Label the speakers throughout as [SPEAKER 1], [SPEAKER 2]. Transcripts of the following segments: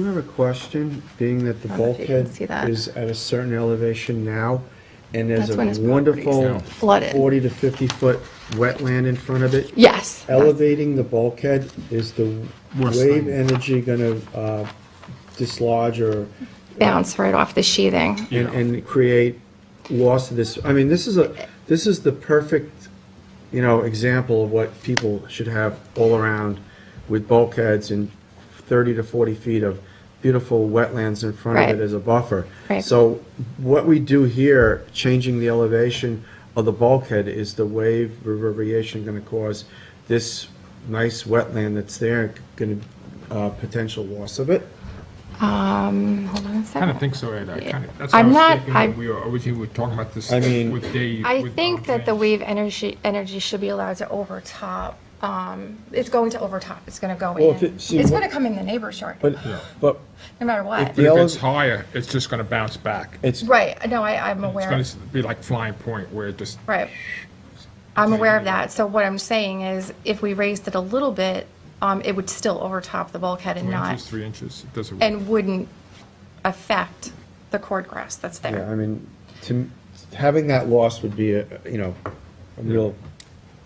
[SPEAKER 1] I have a question, being that the
[SPEAKER 2] I don't know if you can
[SPEAKER 1] bulkhead
[SPEAKER 2] see that.
[SPEAKER 1] is at a certain elevation now, and there's
[SPEAKER 2] That's when his
[SPEAKER 1] a
[SPEAKER 2] property's
[SPEAKER 1] wonderful
[SPEAKER 2] flooded.
[SPEAKER 1] 40 to 50-foot wetland in front of it.
[SPEAKER 2] Yes.
[SPEAKER 1] Elevating the bulkhead, is the
[SPEAKER 3] Worst
[SPEAKER 1] wave
[SPEAKER 3] thing.
[SPEAKER 1] energy going to dislodge or,
[SPEAKER 2] Bounce right off the sheathing.
[SPEAKER 1] and and create loss of this? I mean, this is a, this is the perfect, you know, example of what people should have all around with bulkheads and 30 to 40 feet of beautiful wetlands in front of
[SPEAKER 2] Right.
[SPEAKER 1] it as a buffer.
[SPEAKER 2] Right.
[SPEAKER 1] So what we do here, changing the elevation of the bulkhead, is the wave reverberation going to cause this nice wetland that's there, going to, potential loss of it?
[SPEAKER 2] Um, hold on a
[SPEAKER 3] I kind of
[SPEAKER 2] second.
[SPEAKER 3] think so, Ed. I kind of, that's
[SPEAKER 2] I'm
[SPEAKER 3] what
[SPEAKER 2] not-
[SPEAKER 3] I was thinking
[SPEAKER 2] I-
[SPEAKER 3] when we were, originally we were talking about this
[SPEAKER 1] I mean-
[SPEAKER 3] with Dave.
[SPEAKER 2] I
[SPEAKER 3] with, um,
[SPEAKER 2] think that the
[SPEAKER 3] James.
[SPEAKER 2] wave energy, energy should be allowed to overtop, um, it's going to overtop, it's gonna go
[SPEAKER 1] Well, if
[SPEAKER 2] in.
[SPEAKER 1] it- see,
[SPEAKER 2] It's
[SPEAKER 1] what-
[SPEAKER 2] gonna come in the neighbor's yard,
[SPEAKER 1] But, but
[SPEAKER 2] no matter what.
[SPEAKER 3] But if
[SPEAKER 1] Yellow-
[SPEAKER 3] it's higher, it's just going to bounce back.
[SPEAKER 1] it's,
[SPEAKER 2] Right, no, I, I'm
[SPEAKER 3] It's
[SPEAKER 2] aware,
[SPEAKER 3] going
[SPEAKER 2] of-
[SPEAKER 3] to be like flying point where it just,
[SPEAKER 2] right. I'm aware of that, so what I'm saying is, if we raised it a little bit, um, it would still overtop the bulkhead and
[SPEAKER 3] two
[SPEAKER 2] not,
[SPEAKER 3] inches, three inches, it doesn't work.
[SPEAKER 2] and wouldn't affect the cord grass that's
[SPEAKER 1] yeah,
[SPEAKER 2] there.
[SPEAKER 1] I mean, to, having that loss would be, a you know, a real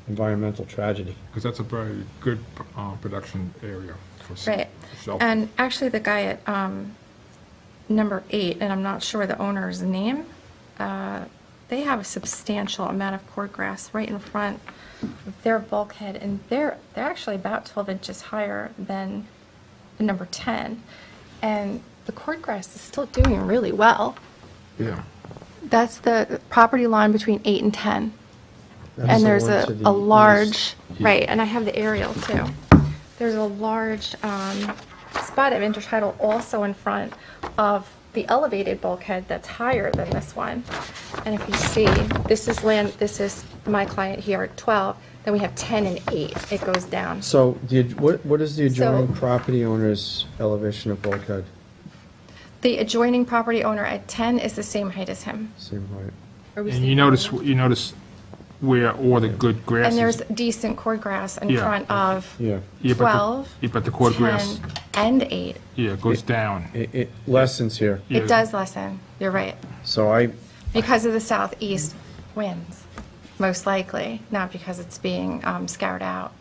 [SPEAKER 1] environmental tragedy.
[SPEAKER 3] Because that's a very good uh, production area for s-
[SPEAKER 2] Right,
[SPEAKER 3] shelter.
[SPEAKER 2] and actually, the guy at, um, number eight, and I'm not sure the owner's name, uh, they have a substantial amount of cord grass right in front of their bulkhead, and they're, they're actually about 12 inches higher than the number 10, and the cord grass is still doing really well.
[SPEAKER 3] Yeah.
[SPEAKER 2] That's the property line between eight and 10,
[SPEAKER 1] That's
[SPEAKER 2] and
[SPEAKER 1] the
[SPEAKER 2] there's
[SPEAKER 1] one
[SPEAKER 2] a,
[SPEAKER 1] to the
[SPEAKER 2] a
[SPEAKER 1] east.
[SPEAKER 2] large, right, and I have the aerial too. There's a large um, spot of intertidal also in front of the elevated bulkhead that's higher than this one. And if you see, this is land, this is my client here at 12, then we have 10 and 8, it goes down.
[SPEAKER 1] So, the ad- what, what is the adjoining
[SPEAKER 2] So-
[SPEAKER 1] property owner's elevation of bulkhead?
[SPEAKER 2] The adjoining property owner at 10 is the same height as him.
[SPEAKER 1] Same height.
[SPEAKER 3] And you notice, you notice where all the good grass
[SPEAKER 2] And
[SPEAKER 3] is.
[SPEAKER 2] there's decent cord grass in
[SPEAKER 3] Yeah.
[SPEAKER 2] front of
[SPEAKER 1] Yeah.
[SPEAKER 3] Yeah, but the-
[SPEAKER 2] 12,
[SPEAKER 3] Yeah, but the cord grass,
[SPEAKER 2] 10, and 8.
[SPEAKER 3] yeah, it goes down.
[SPEAKER 1] It, it lessens here.
[SPEAKER 3] Yeah.
[SPEAKER 2] It does lessen, you're right.
[SPEAKER 1] So I,
[SPEAKER 2] Because of the southeast winds, most likely, not because it's being um, scoured out,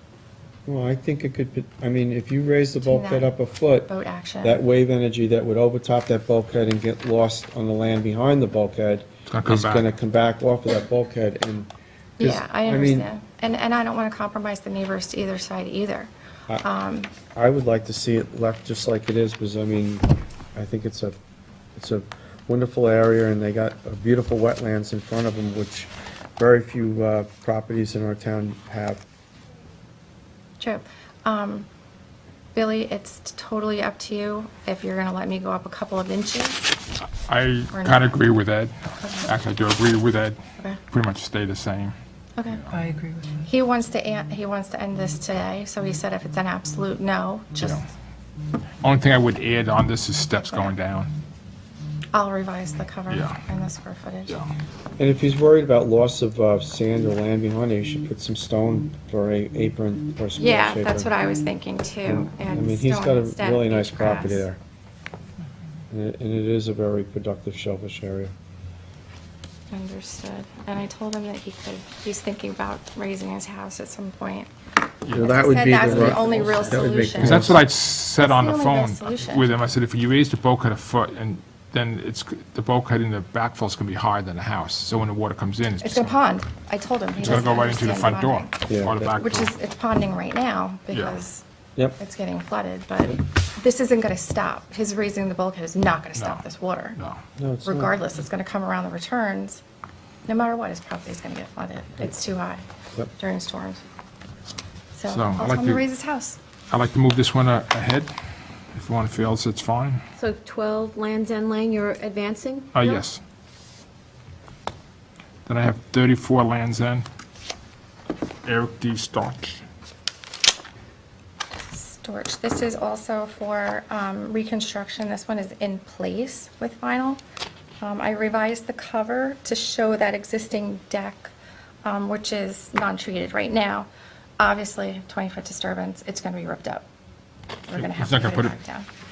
[SPEAKER 1] well, I think it could, be- I mean, if you raise the
[SPEAKER 2] Between
[SPEAKER 1] bulkhead
[SPEAKER 2] that
[SPEAKER 1] up a foot,
[SPEAKER 2] boat action.
[SPEAKER 1] that wave energy that would overtop that bulkhead and get lost on the land behind the bulkhead
[SPEAKER 3] gonna come
[SPEAKER 1] is
[SPEAKER 3] back.
[SPEAKER 1] gonna come back off of that bulkhead and. 'cause,
[SPEAKER 2] Yeah, I
[SPEAKER 1] mean,
[SPEAKER 2] understand. And, and I don't want to compromise the neighbors to either side either.
[SPEAKER 1] I would like to see it left just like it is, because I mean, I think it's a, it's a wonderful area, and they got a beautiful wetlands in front of them, which very few uh, properties in our town have.
[SPEAKER 2] True. Um, Billy, it's totally up to you if you're going to let me go up a couple of inches.
[SPEAKER 3] I
[SPEAKER 2] Or
[SPEAKER 3] kind
[SPEAKER 2] not.
[SPEAKER 3] of agree with Ed. Actually, I do agree with Ed.
[SPEAKER 2] Okay.
[SPEAKER 3] Pretty much stay the same.
[SPEAKER 2] Okay.
[SPEAKER 4] I agree with you.
[SPEAKER 2] He wants to, an- he wants to end this today, so he said if it's an absolute no, just,
[SPEAKER 3] Only thing I would add on this is steps going down.
[SPEAKER 2] I'll revise the cover
[SPEAKER 3] Yeah.
[SPEAKER 2] and the square footage.
[SPEAKER 3] Yeah.
[SPEAKER 1] And if he's worried about loss of uh, sand or land behind it, he should put some stone for a apron or some.
[SPEAKER 2] Yeah, that's what I was thinking too.
[SPEAKER 1] I
[SPEAKER 2] and
[SPEAKER 1] mean, he's
[SPEAKER 2] stone
[SPEAKER 1] got a
[SPEAKER 2] instead of
[SPEAKER 1] really nice
[SPEAKER 2] beach
[SPEAKER 1] property
[SPEAKER 2] grass.
[SPEAKER 1] there. And it- and it is a very productive shellfish area.
[SPEAKER 2] Understood. And I told him that he could, he's thinking about raising his house at some point.
[SPEAKER 1] Well,
[SPEAKER 2] As I said, that's the only real solution.
[SPEAKER 3] Because that's what I said on the
[SPEAKER 2] That's the only
[SPEAKER 3] phone
[SPEAKER 2] best solution.
[SPEAKER 3] with him. I said, if you raise the bulkhead a foot, and then it's, g- the bulkhead in the backfill is going to be higher than the house. So when the water comes in, it's
[SPEAKER 2] It's
[SPEAKER 3] just
[SPEAKER 2] a
[SPEAKER 3] going
[SPEAKER 2] pond. I told him.
[SPEAKER 3] to go right into the front door
[SPEAKER 1] Yeah,
[SPEAKER 3] or the
[SPEAKER 1] that-
[SPEAKER 3] back
[SPEAKER 2] Which
[SPEAKER 3] door.
[SPEAKER 2] is, it's ponding right now because
[SPEAKER 1] Yep.
[SPEAKER 2] it's getting flooded, but this isn't going to stop. His raising the bulkhead is not going to stop
[SPEAKER 3] No.
[SPEAKER 2] this water.
[SPEAKER 3] No.
[SPEAKER 1] No, it's not.
[SPEAKER 2] Regardless, it's going to come around the returns. No matter what, his property's going to get flooded. It's too high
[SPEAKER 1] Yep.
[SPEAKER 2] during storms. So
[SPEAKER 3] So, I'd
[SPEAKER 2] I'll
[SPEAKER 3] like
[SPEAKER 2] tell him to
[SPEAKER 3] to-
[SPEAKER 2] raise his house.
[SPEAKER 3] I'd like to move this one a- ahead. If one fails, it's fine.
[SPEAKER 5] So 12 Land's End Lane, you're advancing?
[SPEAKER 3] Uh,
[SPEAKER 5] No?
[SPEAKER 3] yes. Then I have 34 Lands End. Eric D. Starch.
[SPEAKER 2] Storage, this is also for um, reconstruction, this one is in place with vinyl. Um, I revised the cover to show that existing deck, um, which is non-treated right now. Obviously, 20-foot disturbance, it's going to be ripped up. We're going to have to
[SPEAKER 3] He's not
[SPEAKER 2] put
[SPEAKER 3] gonna
[SPEAKER 2] it
[SPEAKER 3] put
[SPEAKER 2] back
[SPEAKER 3] it,
[SPEAKER 2] down.